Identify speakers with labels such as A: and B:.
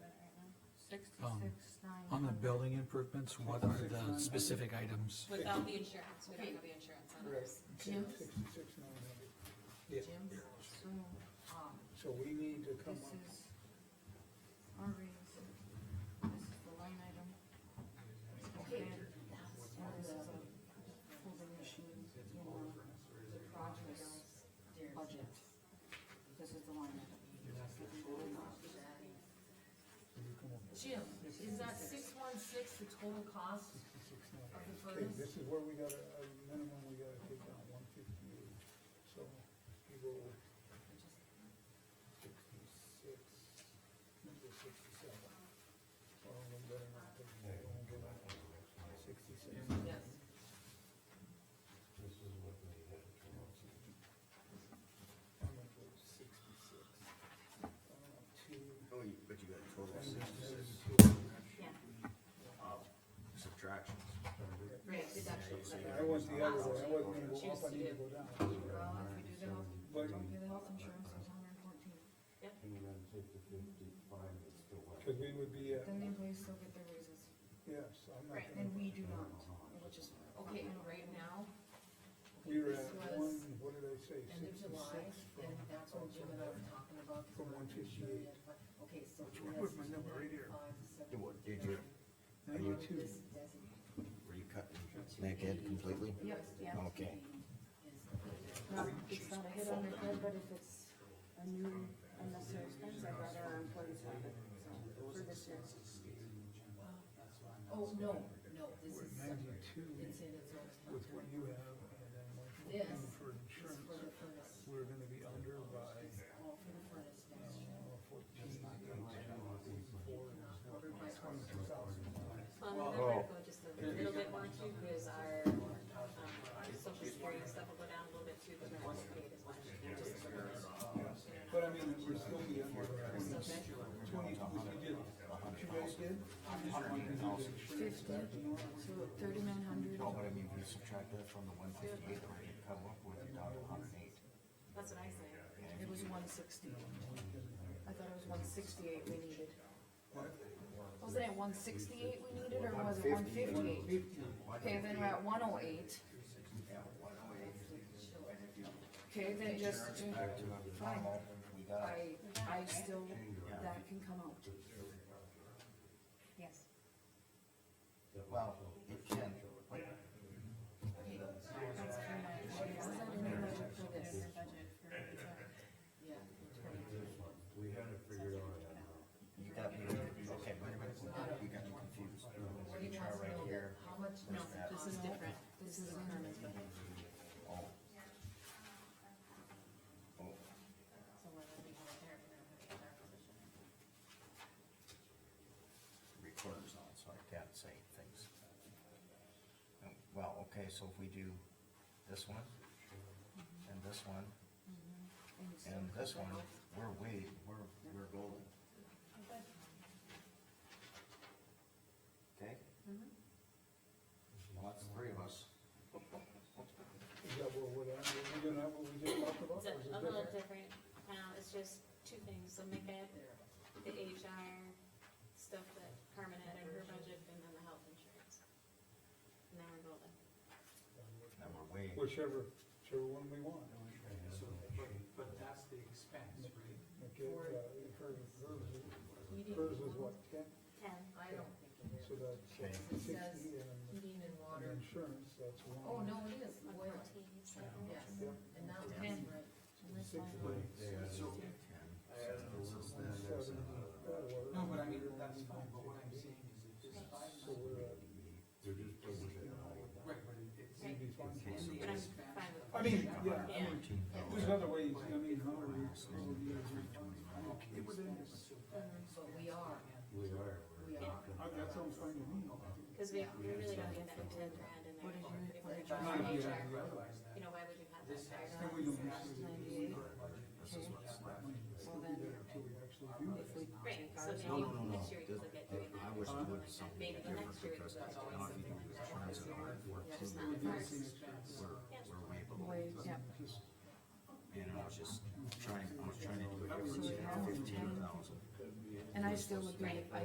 A: Sixty-six, nine.
B: Um, On the building improvements, what are the specific items?
C: Without the insurance, we don't have the insurance on
D: Correct.
C: this.
A: Jim?
D: Sixty-six, nine hundred. Yeah.
A: Jim, so, um,
D: So we need to come
A: this
D: up,
A: is Harvey's, this is the line item. Okay. And this is a folding machine in the project budget. This is the line item.
E: Jim, is that six one six the total cost of the
D: okay,
E: furnace?
D: this is where we gotta, uh, minimum, we gotta take down one fifty-eight, so we go sixty-six, we go sixty-seven. Well, we better not take that, we'll go back to sixty-six.
E: Yes,
D: I'm gonna go sixty-six. Uh, two,
F: Oh, you- but you got a total of
D: and then
F: sixty-six
D: there's two.
F: subtractions.
A: Right, deduction.
D: I want the other one, I wasn't gonna go up, I need to go down.
A: Well, if we do the health,
D: But-
A: do the health insurance, it's hundred and fourteen.
D: Cause we would be, uh,
A: Then the employees still get their raises,
D: yes, I'm not
E: Right,
D: gonna,
A: and we do not, which is.
E: okay, and right now,
D: we were
E: this
D: at one,
E: was
D: what did I say,
E: end of July,
D: sixty-six?
E: and that's when Jim and I were talking about.
D: From 158.
E: Okay, so.
D: Which one was my number right here?
F: Did what, did you,
D: Ninety-two,
F: were you cut naked completely?
A: Yep, yeah.
F: Okay.
A: Not, it's not a hit on the head, but if it's a new unnecessary expense, I'd rather our employees have it, so, for this year.
E: Oh, no, no, this is separate.
D: ninety-two
E: It's in its own.
D: with what you have, and then what you
E: This
D: do for
E: is for
D: insurance,
E: the furnace,
D: we're gonna be under by uh,
E: all for the furnace next year.
D: fourteen, eight, four, twenty-two thousand.
C: Um, and then we're gonna go just a little bit more too, because our, um, our social security stuff will go down a little bit too, because we're also paid as much. just for this.
D: But I mean, we're still be under twenty-two, if you did, if you guys did, you just wanted to do the insurance back to normal.
A: So thirty-nine hundred,
F: No, but I mean, we subtract that from the one fifty-eight, where you come up with it down to hundred and eight.
C: That's what I say.
A: it was one sixty. I thought it was one sixty-eight we needed. Wasn't it one sixty-eight we needed, or was it one fifty-eight? Okay, then we're at one oh eight. Okay, then just, uh,
F: Back to the
A: fine,
F: normal, we got,
A: I, I still, that can come out.
C: Yes.
F: well, it can, but
A: That's for my, is that in the budget for this?
E: Yeah.
F: you got me, okay, wait a minute, you got me confused. What you try right here,
E: How much?
C: No, this is different.
A: This is in,
F: oh,
C: So we're gonna be going there, we're gonna put it in our position.
F: recorder's on, so I can't say things. Um, Well, okay, so if we do this one, and this one, and this one, we're way, we're, we're golden. Okay? Well, that's three of us.
D: Is that what we're, at? Are we gonna have what we just talked about, or
C: It's
D: is
C: a- a
D: it
C: little
D: different?
C: different, um, it's just two things, so make it the HR stuff that Carmen had in her budget, and then the health insurance. And then we're golden.
F: Now we're way,
D: Whichever, whichever one we want.
G: So, but, but that's the expense, right?
D: Okay, uh, hers, hers is- hers is what, ten,
C: Ten.
E: I don't think it is.
D: so that's uh,
E: It says
D: sixty, and
E: heating and
D: and
E: water.
D: insurance, that's one.
E: Oh, no, it is
C: One
E: oil,
C: fourteen, seven.
E: yes,
D: Yep.
E: and that was right.
D: Sixty,
G: So,
D: seventy, uh,
G: no, but I mean, that's fine, but what I'm saying is if this five,
D: So we're at
G: right, but it- it's
C: Right.
D: maybe fine.
G: in the
C: But I'm
G: expense.
C: fine with
D: I mean, yeah, I
C: Yeah.
D: mean, there's other ways, I mean, how are we, how are we, I'm okay with that.
E: But we are,
H: We are.
E: we are.
D: I, that sounds fine to me.
C: Cause we, we really don't get that ten grand in there. If we're just
D: Not if you
C: HR,
D: have the other one.
C: you know, why would you have that?
G: This has
D: Then we don't actually do
A: ninety-eight, well then,
D: until we actually do
A: if we
D: this.
C: Right,
A: take
C: so
A: ours,
C: maybe next year we could look at doing that.
F: I
C: or
F: was
C: something
F: doing
C: like that.
F: something
C: Uh-huh. Maybe the next year we could look at doing something like that.
F: Insurance and all that work,
C: Just
D: It would be the
C: not the first.
D: same expense.
F: we're, we're way below.
A: wait, yeah,
D: Just-
F: And I was just trying, I was trying to do a
A: so
F: difference,
A: we
F: you know,
A: have
F: fifteen
A: ten,
F: thousand.
A: and I still agree, I